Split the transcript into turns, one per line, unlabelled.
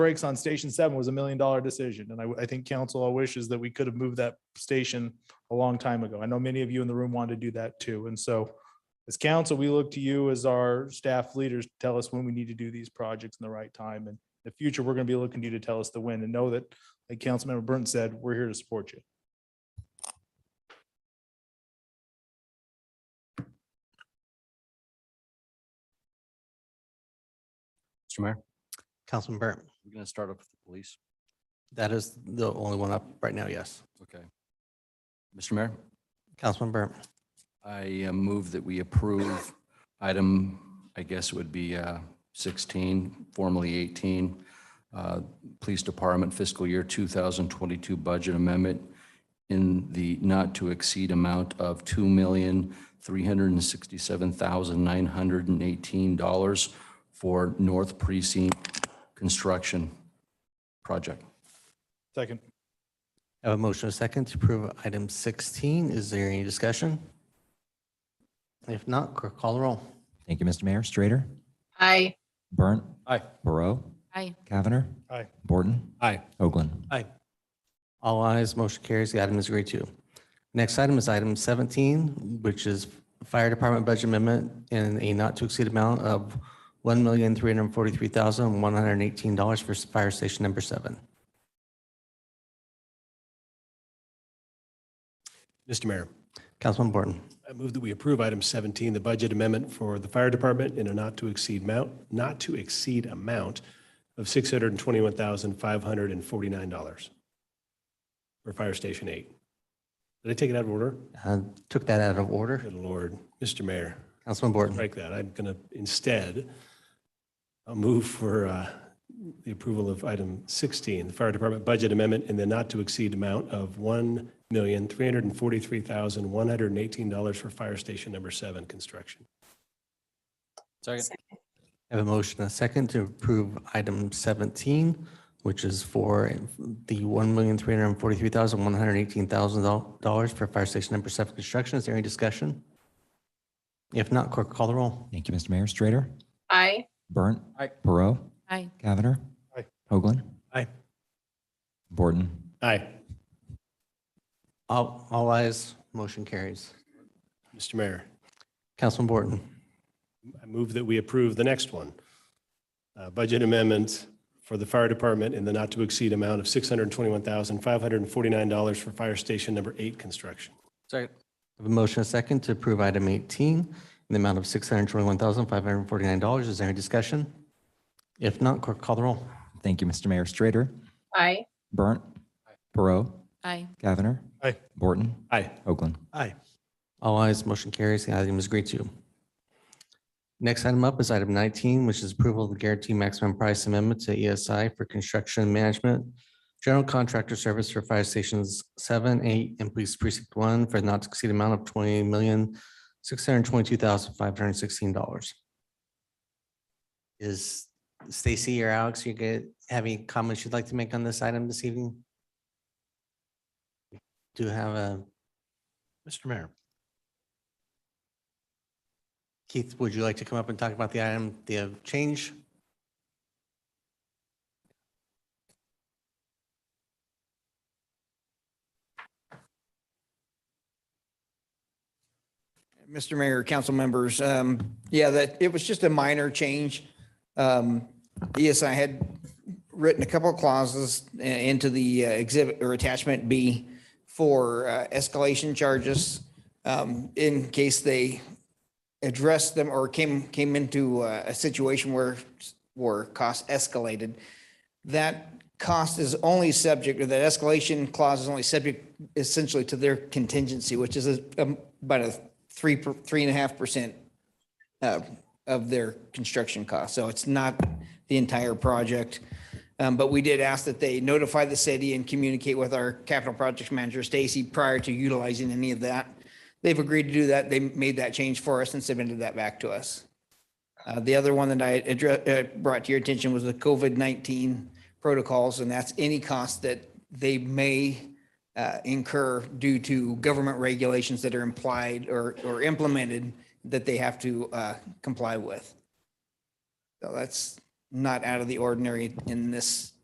brakes on station seven was a million dollar decision. And I, I think council all wishes that we could have moved that station a long time ago. I know many of you in the room wanted to do that too. And so as council, we look to you as our staff leaders, to tell us when we need to do these projects in the right time. And in the future, we're going to be looking to you to tell us the when and know that, like Councilmember Burton said, we're here to support you.
Mr. Mayor,
Councilman Burton,
we're going to start up with the police.
that is the only one up right now, yes.
Okay. Mr. Mayor,
Councilman Burton,
I uh, move that we approve item, I guess it would be uh, 16, formerly 18, uh, Police Department fiscal year 2022 budget amendment in the not to exceed amount of $2,367,918 for North Precinct Construction Project.
Second,
I have a motion and a second to approve item 16. Is there any discussion? If not, clerk call the roll.
Thank you, Mr. Mayor. Strater,
Aye.
Burnt.
Aye.
Barrow.
Aye.
Cavanagh.
Aye.
Borton.
Aye.
Hoagland.
All ayes, motion carries. The item is agreed to. Next item is item 17, which is Fire Department Budget Amendment in a not to exceed amount of $1,343,118 for Fire Station Number 7.
Mr. Mayor,
Councilman Borton,
I move that we approve item 17, the budget amendment for the fire department in a not to exceed amount, not to exceed amount of $621,549 for Fire Station 8. Did I take it out of order?
uh, took that out of order.
Good Lord, Mr. Mayor,
Councilman Borton.
strike that. I'm going to instead, I'll move for uh, the approval of item 16, the fire department budget amendment in the not to exceed amount of $1,343,118 for Fire Station Number 7 construction.
I have a motion and a second to approve item 17, which is for the $1,343,118,000 for fire station number seven construction. Is there any discussion? If not, clerk call the roll.
Thank you, Mr. Mayor. Strater,
Aye.
Burnt.
Aye.
Barrow.
Aye.
Cavanagh.
Aye.
Hoagland.
Aye.
Borton.
Aye.
All all ayes, motion carries.
Mr. Mayor,
Councilman Borton,
I move that we approve the next one. Uh, Budget amendment for the fire department in the not-to-exceed amount of $621,549 for Fire Station Number 8 construction.
Second.
I have a motion and a second to approve item 18 in the amount of $621,549. Is there any discussion? If not, clerk call the roll.
Thank you, Mr. Mayor. Strater,
Aye.
Burnt. Barrow.
Aye.
Cavanagh.
Aye.
Borton.
Aye.
Hoagland.
Aye.
All ayes, motion carries. The item is agreed to. Next item up is item 19, which is approval of the guaranteed maximum price amendment to ESI for construction management, general contractor service for fire stations seven, eight, and police precinct one for not to exceed amount of $20,622,516. Is Stacy or Alex, you get, have any comments you'd like to make on this item this evening? Do you have a
Mr. Mayor.
Keith, would you like to come up and talk about the item, the uh, change?
Mr. Mayor, council members, um, yeah, that, it was just a minor change. Um, yes, I had written a couple of clauses i- into the uh, exhibit or attachment B for uh, escalation charges, um, in case they addressed them or came, came into uh, a situation where, where costs escalated. That cost is only subject, or that escalation clause is only subject essentially to their contingency, which is a- um, about a three, per- three and a half percent uh, of their construction cost. So it's not the entire project. Um, But we did ask that they notify the city and communicate with our capital projects manager, Stacy, prior to utilizing any of that. They've agreed to do that. They made that change for us and submitted that back to us. Uh, The other one that I address, uh, brought to your attention was the COVID-19 protocols, and that's any cost that they may uh, incur due to government regulations that are implied or, or implemented that they have to uh, comply with. So that's not out of the ordinary in this